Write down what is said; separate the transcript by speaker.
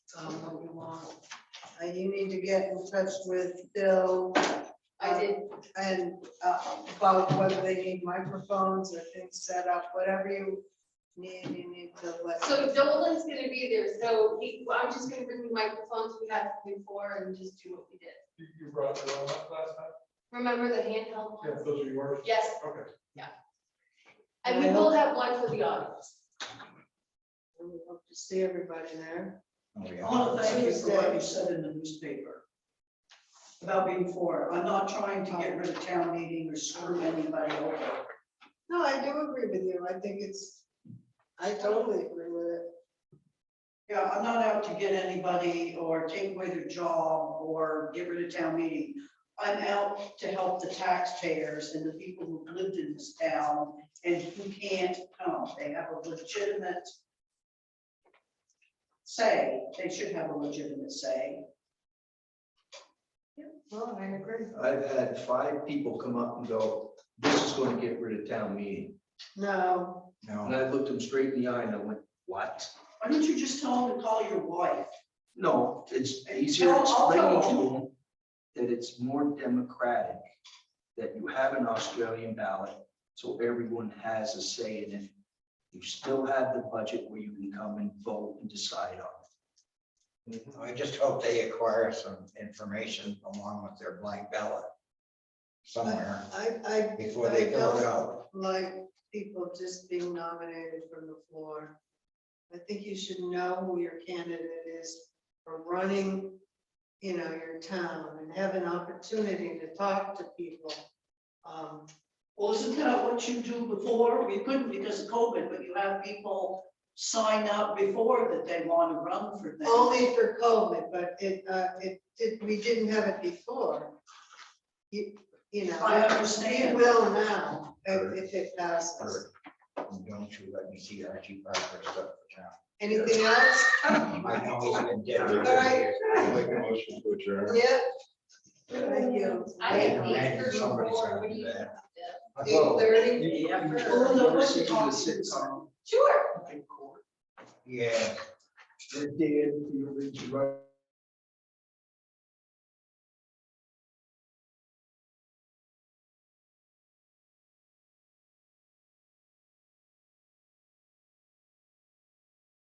Speaker 1: along.
Speaker 2: Uh, You need to get in touch with Bill
Speaker 1: I did,
Speaker 2: and uh, about whether they need microphones or things set up, whatever you need, you need to let.
Speaker 1: so Dolan's gonna be there, so he, well, I'm just gonna bring the microphones we had before and just do what we did.
Speaker 3: You you brought that one up last time?
Speaker 1: Remember the handheld
Speaker 3: Yeah,
Speaker 1: ones?
Speaker 3: those are yours?
Speaker 1: Yes,
Speaker 3: Okay.
Speaker 1: and we will have one for the audience.
Speaker 2: And We hope to see everybody there.
Speaker 4: I want to thank you for what you said in the newspaper about being for it. I'm not trying to get rid of town meeting or screw anybody over.
Speaker 2: No, I do agree with you. I think it's, I totally agree with it.
Speaker 4: Yeah, I'm not out to get anybody or take away their job or get rid of town meeting. I'm out to help the taxpayers and the people who've lived in this town and who can't come. They have a legitimate say. They should have a legitimate say.
Speaker 2: Well, I agree.
Speaker 5: I've had five people come up and go, this is gonna get rid of town meeting.
Speaker 2: No,
Speaker 5: And I looked them straight in the eye and I went, what?
Speaker 4: Why don't you just tell them to call your wife?
Speaker 5: No, it's easier
Speaker 4: Tell all
Speaker 5: explaining
Speaker 4: of
Speaker 5: to
Speaker 4: them.
Speaker 5: them that it's more democratic, that you have an Australian ballot, so everyone has a say in it. You still have the budget where you can come and vote and decide on.
Speaker 6: Mm-hmm. I just hope they acquire some information along with their blank ballot somewhere
Speaker 2: I, I.
Speaker 6: before they
Speaker 2: I
Speaker 6: fill it
Speaker 2: don't
Speaker 6: out.
Speaker 2: Like people just being nominated from the floor. I think you should know who your candidate is for running, you know, your town and have an opportunity to talk to people. Um,
Speaker 4: Well, isn't that what you do before? We couldn't because of COVID, but you have people sign up before that they want to run for things.
Speaker 2: Only for COVID, but it, uh, it, did. we didn't have it before. You, you know.
Speaker 4: I
Speaker 2: We
Speaker 4: understand.
Speaker 2: will now, if if it passes.
Speaker 6: Or Don't you let me see Archie Parker stuff for
Speaker 2: Anything else?
Speaker 6: town. I know he's been dead
Speaker 2: All
Speaker 6: for
Speaker 2: right.
Speaker 6: years.
Speaker 3: Make a motion to adjourn.
Speaker 2: Yeah. Thank you.
Speaker 1: I have eight
Speaker 6: Imagine
Speaker 1: thirty-four,
Speaker 6: somebody's
Speaker 1: what do
Speaker 6: having
Speaker 1: you?
Speaker 6: that. I
Speaker 2: Eight
Speaker 6: thought,
Speaker 2: thirty,
Speaker 4: Yeah.
Speaker 5: Oh, You- you-
Speaker 4: Well, no, what's the
Speaker 5: you can
Speaker 4: cost?
Speaker 5: sit on
Speaker 1: Sure,
Speaker 5: the court.
Speaker 6: Yeah.
Speaker 5: They're dead, you're right.